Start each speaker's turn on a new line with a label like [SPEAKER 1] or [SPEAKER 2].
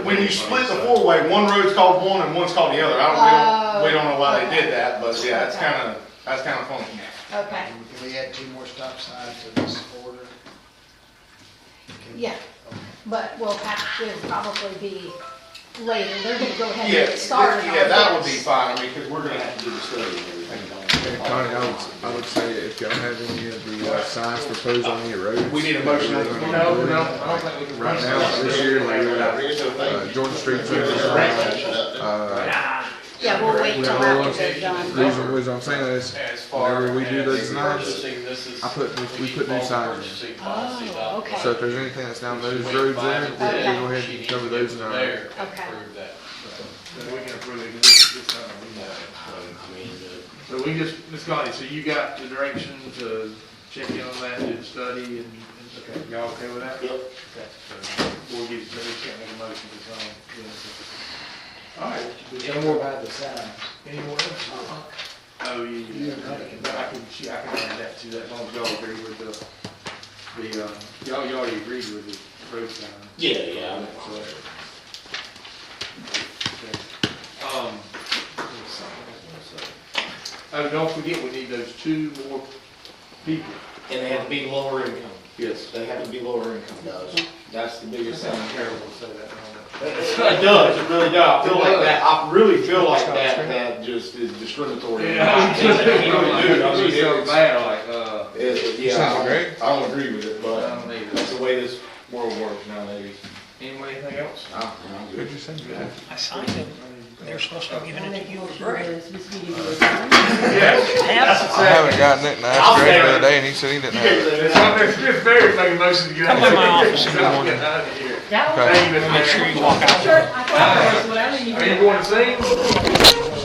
[SPEAKER 1] When you split the four-way, one road's called one and one's called the other. I
[SPEAKER 2] Oh,
[SPEAKER 1] don't, we don't, we don't know why they did that, but yeah, it's kind of, that's kind of funky.
[SPEAKER 2] Okay,
[SPEAKER 3] Can we add two more stop signs to this order? Can-
[SPEAKER 2] yeah, but we'll have to probably be later, they're gonna go ahead
[SPEAKER 1] Yeah,
[SPEAKER 2] and get started on
[SPEAKER 1] yeah, that would be
[SPEAKER 2] this.
[SPEAKER 1] fine, I mean, because we're gonna have to do the study and everything.
[SPEAKER 4] Connie, I would, I would say if y'all have any of the uh, signs proposed on any roads.
[SPEAKER 1] We need a motion.
[SPEAKER 4] we're gonna-
[SPEAKER 1] No, no, I don't think we can.
[SPEAKER 4] Right now, this year, like, we're not, uh, Jordan Street, uh,
[SPEAKER 2] Yeah, we'll wait
[SPEAKER 4] we
[SPEAKER 2] till
[SPEAKER 4] have all
[SPEAKER 2] after
[SPEAKER 4] of,
[SPEAKER 2] they're done.
[SPEAKER 4] reason, reason I'm saying is,
[SPEAKER 5] As far
[SPEAKER 4] whenever we do those
[SPEAKER 5] as
[SPEAKER 4] signs,
[SPEAKER 5] purchasing, this is.
[SPEAKER 4] I put new- we put new
[SPEAKER 5] called
[SPEAKER 4] signs in.
[SPEAKER 5] purchasing policy
[SPEAKER 2] Oh,
[SPEAKER 5] document.
[SPEAKER 4] so
[SPEAKER 2] okay,
[SPEAKER 4] if there's anything that's down those roads there, we can go ahead and cover those in our.
[SPEAKER 5] There,
[SPEAKER 2] Okay.
[SPEAKER 5] approve that.
[SPEAKER 6] Then we can approve it, 'cause this, this time we know. So we just, Ms. Connie, so you got the direction to check in on that, do the study, and, and, okay, y'all okay with that? Yep. Okay, so, we'll get, maybe we can't make a motion to sign. All right.
[SPEAKER 3] Tell more about the signs.
[SPEAKER 6] Any more? Oh, yeah, yeah, I can, she, I can add that to that, as long as y'all agree with the, the, uh, y'all, y'all already agreed with the road sign.
[SPEAKER 7] Yeah, yeah.
[SPEAKER 6] Um, oh, don't forget, we need those two more people.
[SPEAKER 7] And they have to be lower income.
[SPEAKER 6] Yes.
[SPEAKER 7] They have to be lower income. Does. That's the biggest thing.
[SPEAKER 6] Terrible to say that. I
[SPEAKER 7] It does, it really does. I feel like
[SPEAKER 6] does.
[SPEAKER 7] that, I really feel like that, that just is discriminatory.
[SPEAKER 6] don't know.
[SPEAKER 7] Dude, I mean,
[SPEAKER 6] It's so
[SPEAKER 7] it's-
[SPEAKER 6] bad, like, uh,
[SPEAKER 7] It- it- Yeah,
[SPEAKER 4] Sounds
[SPEAKER 7] I
[SPEAKER 4] great.
[SPEAKER 7] don't, I don't agree with it,
[SPEAKER 6] I
[SPEAKER 7] but
[SPEAKER 6] don't need it.
[SPEAKER 7] that's the way this world works nowadays.
[SPEAKER 6] Anybody, anything else?
[SPEAKER 7] I- I'm good.
[SPEAKER 4] What'd you say?
[SPEAKER 8] I signed it. They're supposed to have given it to you.
[SPEAKER 6] Yes.
[SPEAKER 4] I haven't gotten it, and I
[SPEAKER 7] I'll
[SPEAKER 4] asked Greg the
[SPEAKER 7] say it.
[SPEAKER 4] other day, and he said he didn't have it.
[SPEAKER 6] It's on there, Smith Ferry making motion to get out of
[SPEAKER 8] Come by
[SPEAKER 6] here.
[SPEAKER 8] my office in the
[SPEAKER 6] Get
[SPEAKER 8] morning.
[SPEAKER 6] out of here.
[SPEAKER 4] Okay.
[SPEAKER 6] Thank you, Mr.
[SPEAKER 8] Make sure you walk out.
[SPEAKER 6] Mayor. Are you going to sing?